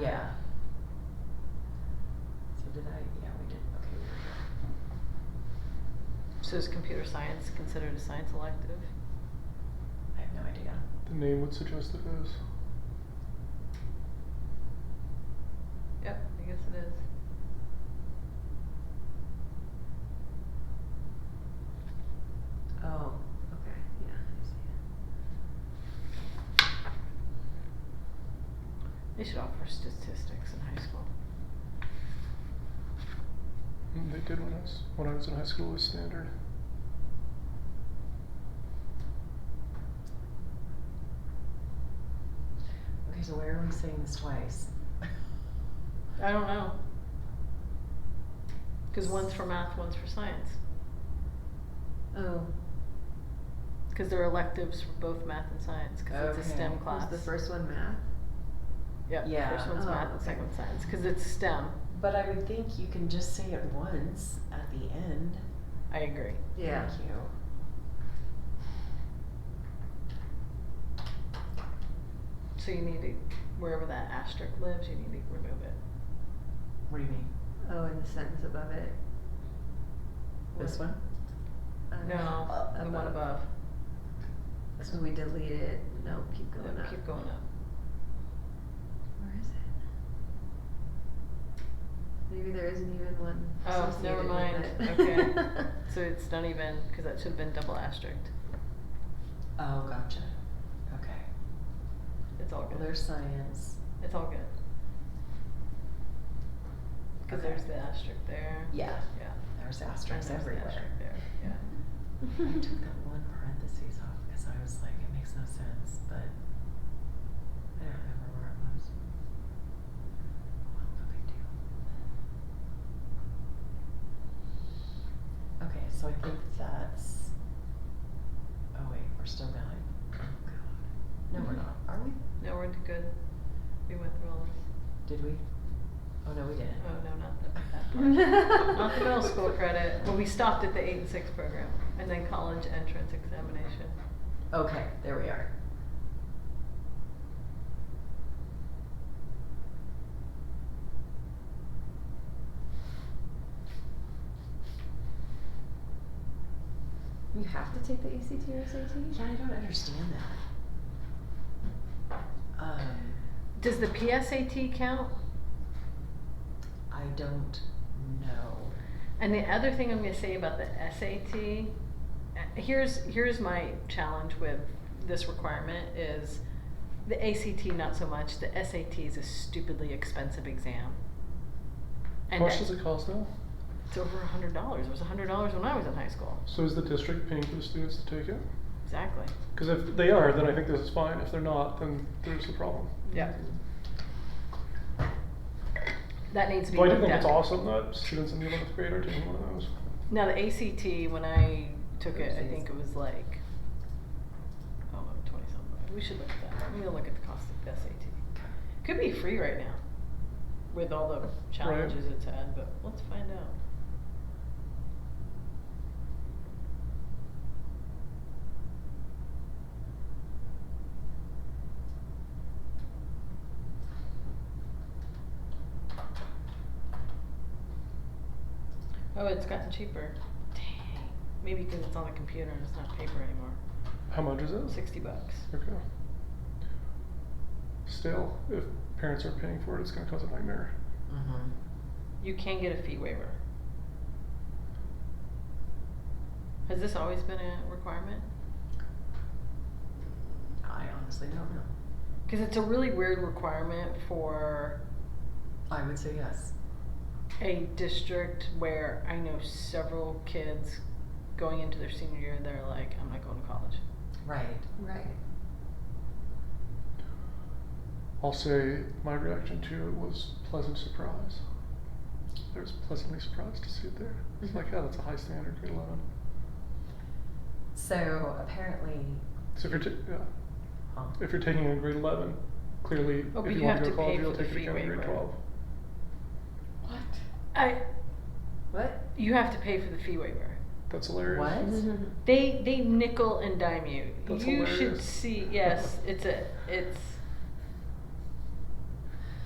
yeah. So did I, yeah, we did, okay, there we So is computer science considered a science elective? go. I have no idea. The name would suggest it is. Yep, I guess it is. Oh, okay, yeah, I see. They should offer statistics in high school. Mm, They did when I was when I was in high school was standard. Okay, so why are we saying this twice? I don't know. Cause one's for math, one's for science. Oh, Cause they're electives for both math and science, cause it's a STEM Okay. class. was the first one math? Yep, the Yeah. first one's Oh, math, the okay. second one's science, cause it's STEM. But I would think you can just say it once at the end. I agree. Yeah. Thank you. So you need to, wherever that asterisk lives, you need to remove it. What do you mean? Oh, and the sentence above it. This What- one? uh, No, the one above. So we deleted, no, keep No, going up. Keep going up. Where is it? Maybe there isn't even one Oh, associated never with mind. it. Okay. So it's not even, because that should have been double asterisked. Oh, gotcha. Okay. It's all Well, good. there's science. It's all good. Because Okay. there's the asterisk there. Yeah. Yeah. There's And asterisks there's the everywhere. asterisk there. Yeah. I took that one parentheses off because I was like, it makes no sense, but I don't remember where it was. Well, no big deal. Okay, so I think that's. Oh wait, we're still going. Oh god. No, we're not. Are we? No, we're good. We went through all this. Did we? Oh no, we didn't. Oh, no, not the, that part. Not the middle school credit. Well, we stopped at the eight and six program, and then college entrance examination. Okay, there we are. You have to take the ACT or SAT? Yeah, I don't understand that. Um, Does the PSAT count? I don't know. And the other thing I'm going to say about the SAT, uh, here's here's my challenge with this requirement is the ACT not so much. The SAT is a stupidly expensive exam. How And that- much does it cost now? It's over a hundred dollars. It was a hundred dollars when I was in high school. So is the district paying for the students to take it? Exactly. Because if they are, then I think this is fine. If they're not, then there's a problem. Yeah. That needs to be Well, I do looked think at. it's awesome that students in the eleventh grade are taking one of those. Now the ACT when I took it, I Oopsies. think it was like oh, like twenty something. We should look at that. I'm gonna look at the cost of the SAT. Could be free right now, with all the challenges it's had. But let's find out. Oh, it's gotten cheaper. Dang. Maybe because it's on the computer and it's not paper anymore. How much is it? Sixty bucks. Okay. Still, if parents are paying for it, it's going to cause a nightmare. Mm-hmm. You can get a fee waiver. Has this always been a requirement? I honestly don't know. Because it's a really weird requirement for I would say yes. a district where I know several kids going into their senior year, they're like, I'm not going to college. Right. Right. I'll say my reaction to it was pleasant surprise. I was pleasantly surprised to see it there. It's Mm-hmm. Mhm. like, oh, that's a high standard, grade 11. So apparently, So if you're, ta- yeah. huh? if you're taking a grade 11, clearly, Oh, but if you, you want have to go to pay to college, you'll for the take fee it in grade waiver. 12. What? I, What? you have to pay for the fee waiver. That's hilarious. What? They they nickel and dime you. That's you should hilarious. see. Yes, it's a it's